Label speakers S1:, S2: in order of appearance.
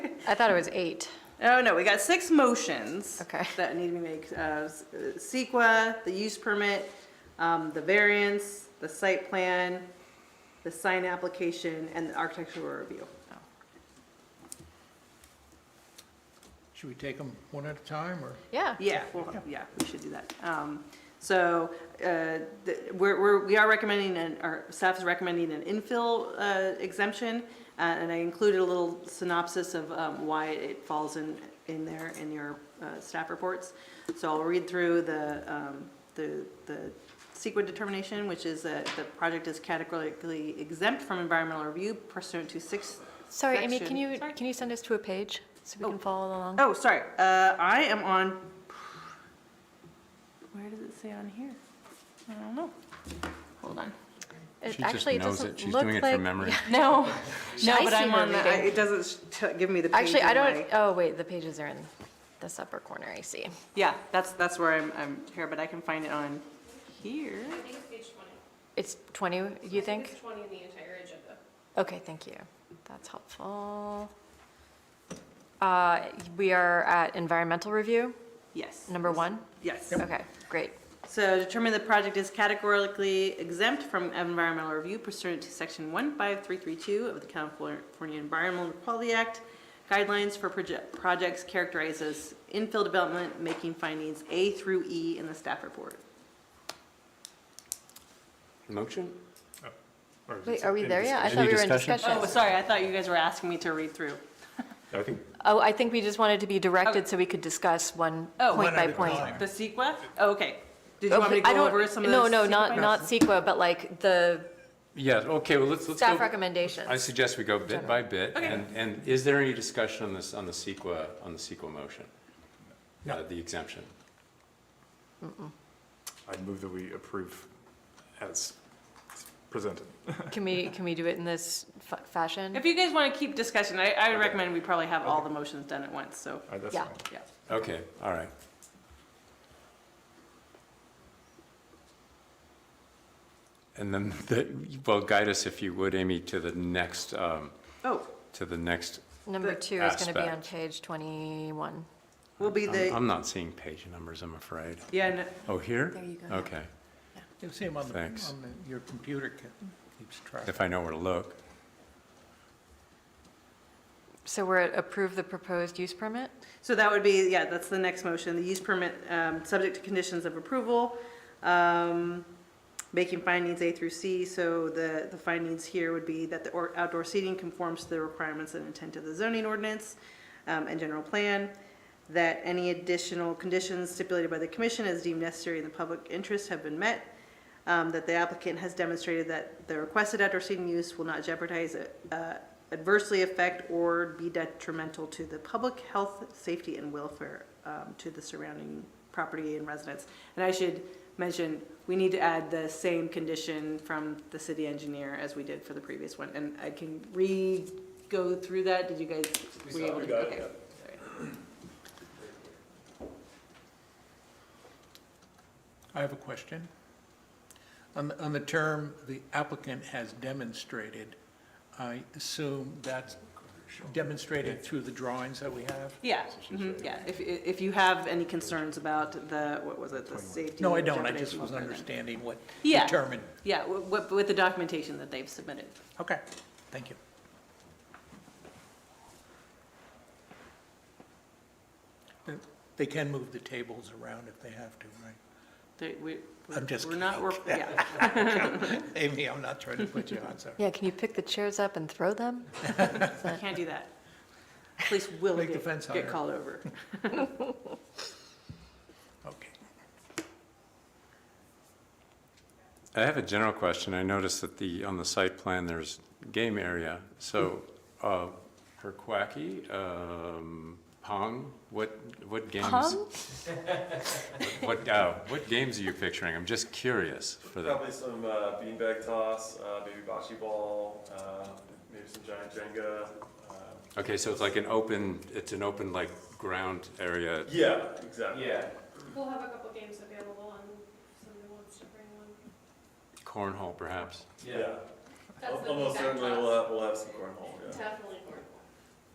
S1: I thought it was eight.
S2: Oh, no, we got six motions.
S1: Okay.
S2: That need to be made, uh, s- uh, SEQA, the use permit, um, the variance, the site plan, the sign application, and the architectural review.
S3: Should we take them one at a time, or?
S1: Yeah.
S2: Yeah, well, yeah, we should do that. Um, so, uh, th- we're, we're, we are recommending, an our staff is recommending an infill, uh, exemption. Uh, and I included a little synopsis of, um, why it falls in, in there in your, uh, staff reports. So I'll read through the, um, the, the CEQA determination, which is that the project is categorically exempt from environmental review pursuant to six.
S1: Sorry, Amy,
S2: section-
S1: can you, can you send us to a page so we can follow along?
S2: Oh, sorry, uh, I am on, where does it say on here? I don't know. Hold on.
S1: It-
S4: She just
S1: actually,
S4: knows
S1: doesn't
S4: it. She's
S1: look
S4: doing it from
S1: like-
S4: memory.
S1: No, no,
S2: I
S1: but
S2: see
S1: I'm
S2: her
S1: on
S2: reading.
S1: the,
S2: It doesn't t- give me the page.
S1: actually, I
S2: in
S1: don't,
S2: my-
S1: oh, wait, the pages are in this upper corner, I see.
S2: Yeah, that's, that's where I'm, I'm here, but I can find it on here.
S5: I think it's page twenty.
S1: It's 20, you think?
S5: It's twenty in the entire agenda.
S1: Okay, thank you. That's helpful. Uh, We are at environmental review,
S2: Yes.
S1: number one?
S2: Yes.
S1: Okay, great.
S2: So determine the project is categorically exempt from environmental review pursuant to section one five three three two of the California Environmental Quality Act. Guidelines for proje- projects characterized as infill development, making findings A through E in the staff report.
S4: Motion?
S6: Or is
S1: Wait,
S6: it
S1: are we
S6: in
S1: there yet? I
S6: discussion?
S1: thought we were in
S4: discussion?
S2: Oh,
S1: discussion.
S2: sorry, I thought you guys were asking me to read through.
S6: I think
S1: Oh, I think we just wanted to be directed so we could discuss one
S2: Oh.
S1: point
S2: One
S1: by
S3: at a
S1: point.
S3: time.
S2: The CEQA? Oh, Okay. Did you want me to
S1: I
S2: go
S1: don't-
S2: over some of
S1: No,
S2: those?
S1: no,
S2: CEQA
S1: not, not CEQA, but like the
S4: Yes, okay, well, let's, let's go.
S1: staff
S4: I
S1: recommendations.
S4: suggest we go bit by bit. And, and is there any discussion on this, on the CEQA, on the CEQA motion?
S3: No.
S4: Uh, The exemption?
S6: I'd move that we approve as presented.
S1: Can we, can we do it in this fa- fashion?
S2: If you guys want to keep discussion, I, I recommend we probably have all the motions done at once, so,
S6: Uh, That's
S1: Yeah.
S6: fine.
S2: yeah.
S4: Okay, all right. And then, the- well, guide us if you would, Amy, to the next, um,
S2: Oh,
S4: to the next.
S1: Number
S2: The
S1: two is going to be on
S4: aspect.
S1: page 21.
S2: will be
S4: I'm
S2: the,
S4: I'm not seeing page numbers, I'm afraid.
S2: yeah, no-
S4: Oh, here?
S1: There you go.
S4: Okay,
S3: You'll see 'em on the,
S4: Thanks.
S3: on the, your computer ca- keeps track.
S4: if I know where to look.
S1: So we're at approve the proposed use permit?
S2: So that would be, yeah, that's the next motion, the use permit, um, subject to conditions of approval, um, making findings A through C, so the, the findings here would be that the or- outdoor seating conforms to the requirements and intent of the zoning ordinance, um, and general plan, that any additional conditions stipulated by the commission as deemed necessary in the public interest have been met, um, that the applicant has demonstrated that the requested outdoor seating use will not jeopardize, uh, adversely affect or be detrimental to the public health, safety, and welfare, um, to the surrounding property and residents. And I should mention, we need to add the same condition from the city engineer as we did for the previous one, and I can re-go through that, did you guys? We got it.
S3: I have a question. On, the- on the term, the applicant has demonstrated, I assume that's demonstrated through the drawings that we have?
S2: Yeah, mhm, yeah, if, if you have any concerns about the, what was it, the safety?
S3: No, I don't, I
S2: jeopardization,
S3: just was
S2: welfare, then-
S3: understanding what
S2: Yeah.
S3: determined.
S2: Yeah, wi- wi- with the documentation that they've submitted.
S3: Okay, thank you. They- They can move the tables around if they have to, right?
S2: They- we-
S3: I'm just
S2: We're not, we're, yeah.
S3: Amy, I'm not trying to put you on, sorry.
S1: Yeah, can you pick the chairs up and throw them?
S2: I Can't do that. Police will
S3: Make the
S2: get,
S3: fence
S2: get
S3: higher.
S2: called over.
S3: Okay.
S4: I have a general question. I noticed that the, on the site plan, there's game area. So, uh, Herquacky, um, Pong, what, what games?
S1: Pong?
S4: What, uh, what games are you picturing? I'm just curious for that.
S7: Probably some uh, beanbag toss, uh, maybe bocce ball, uh, maybe some giant Jenga. Uh,
S4: Okay, so it's like an open, it's an open like ground area.
S7: yeah, exactly. Yeah.
S5: We'll have a couple games available and if somebody wants to bring one.
S4: Cornhole perhaps?
S7: Yeah.
S5: That's
S7: Al-
S5: the
S7: Almost
S5: back
S7: certainly
S5: toss.
S7: we'll have, we'll have some cornhole. Yeah.
S5: Definitely